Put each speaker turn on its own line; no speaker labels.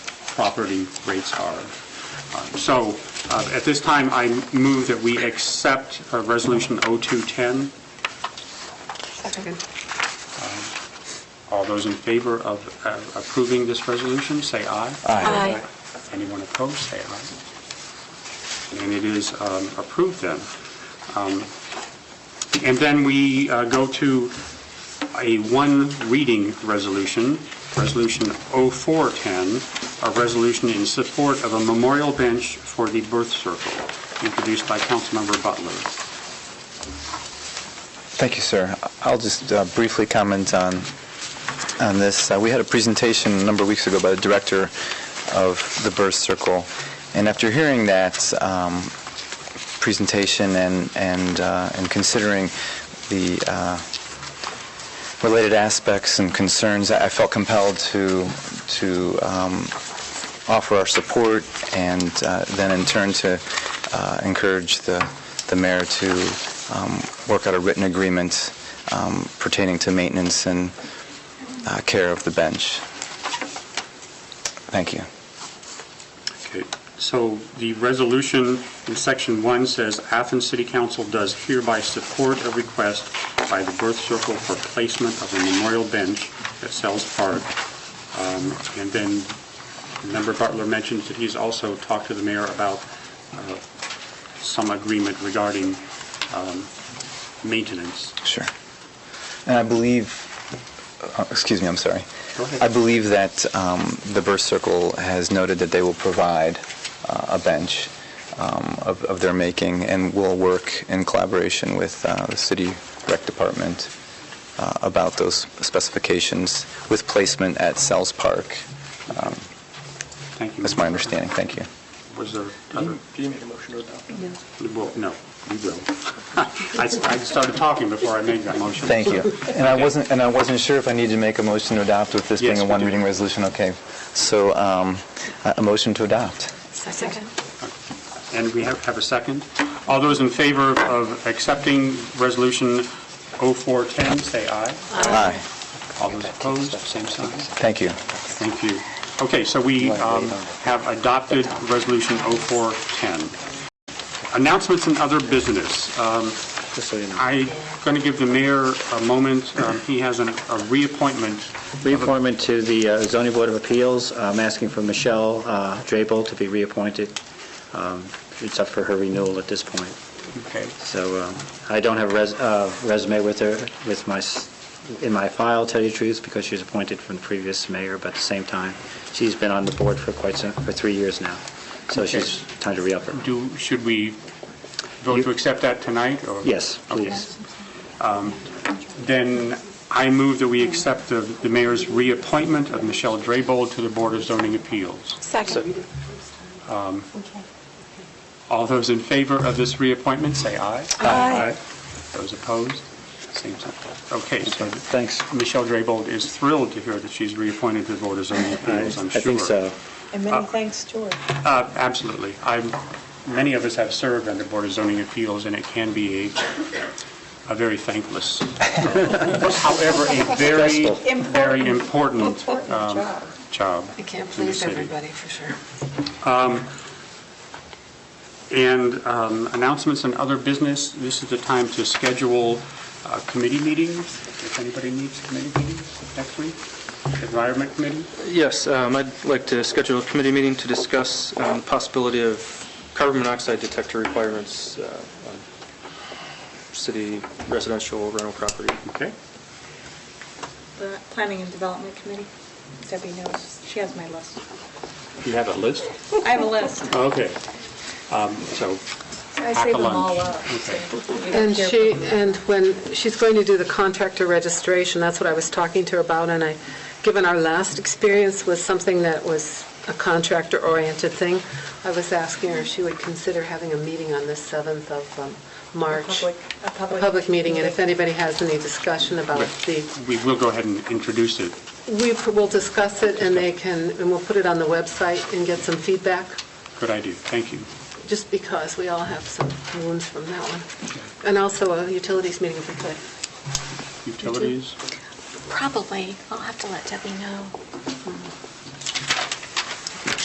property rates are. Uh, So uh, at this time, I move that we accept uh, Resolution 0210.
Second.
All those in favor of uh, approving this resolution, say aye.
Aye.
Anyone opposed, say aye. And it is um, approved then. Um, And then we uh, go to a one-reading resolution, Resolution 0410, a resolution in support of a memorial bench for the birth circle, introduced by Councilmember Butler.
Thank you, sir. I'll just uh, briefly comment on, on this. Uh, We had a presentation a number of weeks ago by the director of the Birth Circle, and after hearing that um, presentation and, and uh, and considering the uh, related aspects and concerns, I I felt compelled to, to um, offer our support and uh, then in turn to uh, encourage the the mayor to um, work out a written agreement um, pertaining to maintenance and uh, care of the bench. Thank you.
Okay, so the resolution in Section 1 says, "Athens City Council does hereby support a request by the Birth Circle for placement of a memorial bench at Sells Park." Um, And then Member Butler mentioned that he's also talked to the mayor about uh, some agreement regarding um, maintenance.
Sure. And I believe, uh, excuse me, I'm sorry.
Go ahead.
I believe that um, the Birth Circle has noted that they will provide uh, a bench um, of of their making and will work in collaboration with uh, the city rec department uh, about those specifications with placement at Sells Park.
Thank you.
That's my understanding. Thank you.
Was there other?
Do you make a motion or not?
Well, no, you will. I I started talking before I made that motion.
Thank you. And I wasn't, and I wasn't sure if I needed to make a motion to adopt with this being
Yes,
a
we do.
one-reading resolution. Okay. So um, a a motion to adopt.
Second.
And we have have a second. All those in favor of accepting Resolution 0410, say aye.
Aye.
All those opposed, same sign.
Thank you.
Thank you. Okay, so we um, have adopted Resolution 0410. Announcements and other business. Um, I'm going to give the mayor a moment. Um, He has an- a reappointment.
Reappointment to the uh, zoning board of appeals. I'm asking for Michelle uh, Drabel to be reappointed. Um, It's up for her renewal at this point.
Okay.
So um, I don't have a res- uh, resume with her, with my, s- in my file, tell you the truth, because she was appointed from the previous mayor, but at the same time, she's been on the board for quite some, for three years now. So she's time to re-up her.
Do, should we vote to accept that tonight, or?
Yes,
Okay.
please.
Then I move that we accept the the mayor's reappointment of Michelle Draybold to the Board of Zoning Appeals.
Second.
All those in favor of this reappointment, say aye.
Aye.
Those opposed, same sign. Okay, so
Thanks.
Michelle Draybold is thrilled to hear that she's reappointed to the Board of Zoning Appeals, I'm
I
sure.
think so.
And many thanks to her.
Uh, Absolutely. I'm, many of us have served on the Board of Zoning Appeals, and it can be a, a very thankless, however, a very,
Stressful.
very important
Important
um,
job.
job.
I can't
in the
please
city.
everybody, for sure.
And um, announcements and other business, this is the time to schedule uh, committee meetings, if anybody needs committee meetings next week, Environment Committee.
Yes, um, I'd like to schedule a committee meeting to discuss um, the possibility of carbon monoxide detector requirements uh, on city residential rental property.
Okay.
The Planning and Development Committee, Debbie knows, she has my list.
You have a list?
I have a list.
Okay. Um, So,
I
Pack a
save them
lunch.
all up. so you don't
And
care.
she, and when, she's going to do the contractor registration, that's what I was talking to her about, and I, given our last experience was something that was a contractor-oriented thing, I was asking her if she would consider having a meeting on the 7th of um, March.
Public- A
A
public.
public meeting, and if anybody has any discussion about the
we will go ahead and introduce it.
We p- will discuss it, and they can, and we'll put it on the website and get some feedback,
Good idea, thank you.
just because we all have some wounds from that one. And also a utilities meeting if we could.
Utilities?
Probably. I'll have to let Debbie know.